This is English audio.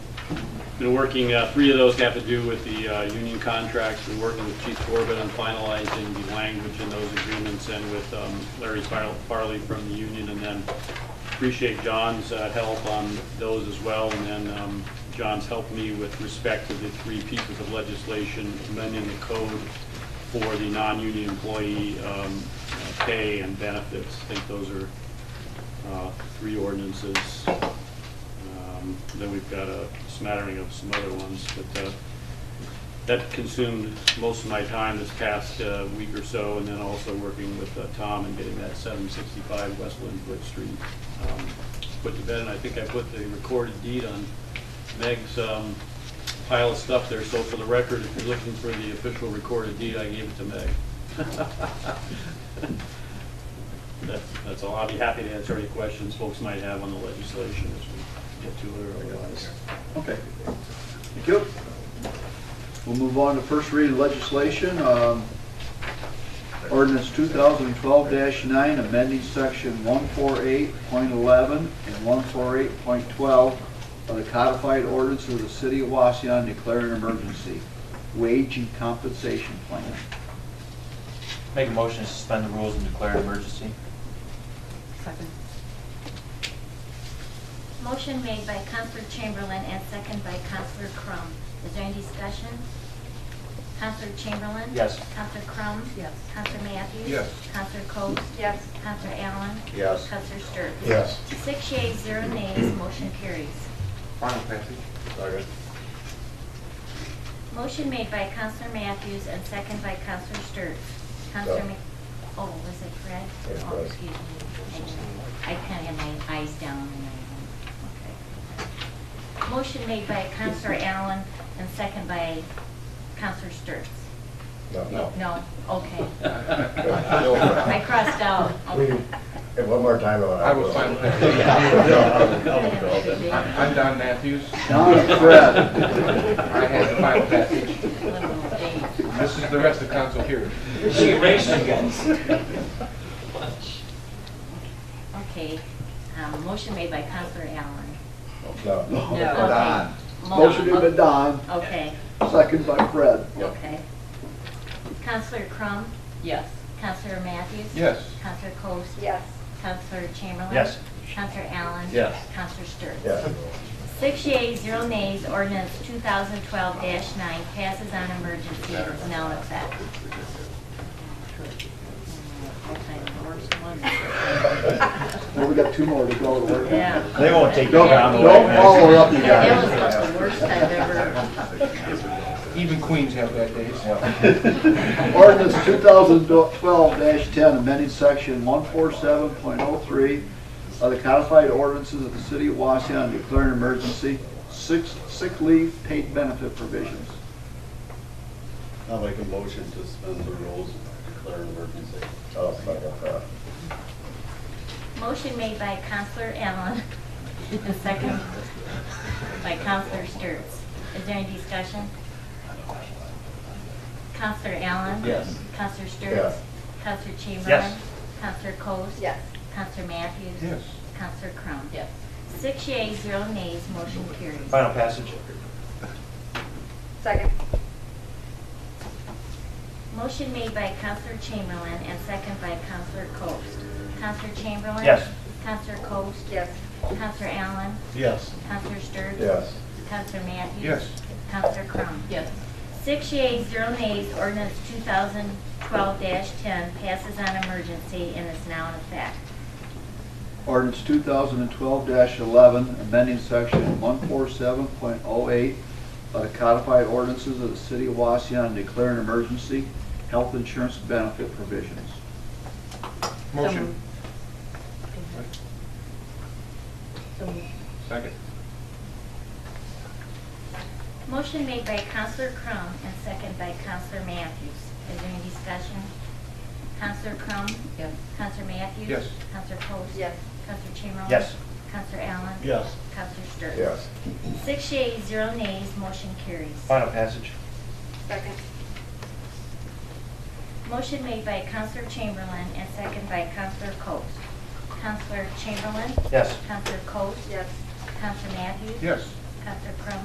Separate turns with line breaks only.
Been working, uh, three of those have to do with the uh, union contracts. Been working with Chief Corbett on finalizing the language in those agreements and with um, Larry Far- Farley from the union. And then appreciate John's uh, help on those as well. And then um, John's helped me with respect to the three pieces of legislation amending the code for the non-union employee um, uh, pay and benefits. I think those are uh, three ordinances. Um, Then we've got a smattering of some other ones, but uh, that consumed most of my time this past uh, week or so, and then also working with uh, Tom and getting that 765 West Lindwood Street um, put to bed. And I think I put the recorded deed on Meg's um, pile of stuff there, so for the record, if you're looking for the official recorded deed, I gave it to Meg. That's, that's all. I'll be happy to answer any questions folks might have on the legislation as we get to it or otherwise.
Okay. Thank you. We'll move on to first reading legislation, um, ordinance 2012-9, amending section 148.11 and 148.12 of the codified ordinance of the city of Waseon declaring emergency, wage and compensation plan.
Make a motion to suspend the rules and declare an emergency.
Second.
Motion made by Counselor Chamberlain and second by Counselor Crum. Is there any discussion? Counselor Chamberlain?
Yes.
Counselor Crum?
Yes.
Counselor Matthews?
Yes.
Counselor Coats?
Yes.
Counselor Allen?
Yes.
Counselor Stewart?
Yes.
Six yeas, zero nays, motion carries.
Final passage?
Motion made by Counselor Matthews and second by Counselor Stewart. Counselor, Ma- oh, was it Fred?
Yes,
Oh,
Fred.
excuse me. I kind of had my eyes down and I, okay. Motion made by Counselor Allen and second by Counselor Stewart.
No, no.
No, okay. I
I
crossed out.
We
Okay.
can, and one more time.
I was fine with that. I'm I'm Don Matthews.
Don and Fred.
I had the final passage.
Little days.
This is the rest of council here.
She raced again.
Okay, um, motion made by Counselor Allen.
No.
Okay.
Don.
Mo-
Motion made by Don,
Okay,
second by Fred.
okay. Counselor Crum?
Yes.
Counselor Matthews?
Yes.
Counselor Coats?
Yes.
Counselor Chamberlain?
Yes.
Counselor Allen?
Yes.
Counselor Stewart?
Yeah.
Six yeas, zero nays, ordinance 2012-9 passes on emergency and is now in effect.
Well, we got two more to go to work. on.
Yeah.
They won't take
Don't,
you down the way.
don't follow up, you
That
guys.
was like the worst I've ever,
Even Queens have bad days.
Ordinance 2012-10, amending section 147.03 of the codified ordinances of the city of Waseon and declaring emergency, six sick leave paid benefit provisions.
I'll make a motion to suspend the rules and declare an emergency.
Oh, it's like a,
motion made by Counselor Allen and second by Counselor Stewart. Is there any discussion? Counselor Allen?
Yes.
Counselor Stewart?
Yeah.
Counselor Chamberlain?
Yes.
Counselor Coats?
Yes.
Counselor Matthews?
Yes.
Counselor Crum?
Yes.
Six yeas, zero nays, motion carries.
Final passage.
Second.
Motion made by Counselor Chamberlain and second by Counselor Coast. Counselor Chamberlain?
Yes.
Counselor Coast?
Yes.
Counselor Allen?
Yes.
Counselor Stewart?
yes.
Counselor Matthews?
Yes.
Counselor Crum?
Yes.
Six yeas, zero nays, ordinance 2012-10 passes on emergency and is now in effect.
Ordinance 2012-11, amending section 147.08 of the codified ordinances of the city of Waseon and declaring emergency, health insurance benefit provisions.
Motion.
So moved.
Second.
Motion made by Counselor Crum and second by Counselor Matthews. Is there any discussion? Counselor Crum?
Yes.
Counselor Matthews?
Yes.
Counselor Coats?
Yes.
Counselor Chamberlain?
Yes.
Counselor Allen?
Yes.
Counselor Stewart?
Yes.
Six yeas, zero nays, motion carries.
Final passage.
Second.
Motion made by Counselor Chamberlain and second by Counselor Coats. Counselor Chamberlain?
Yes.
Counselor Coats?
Yes.
Counselor Matthews?
Yes.
Counselor Crum?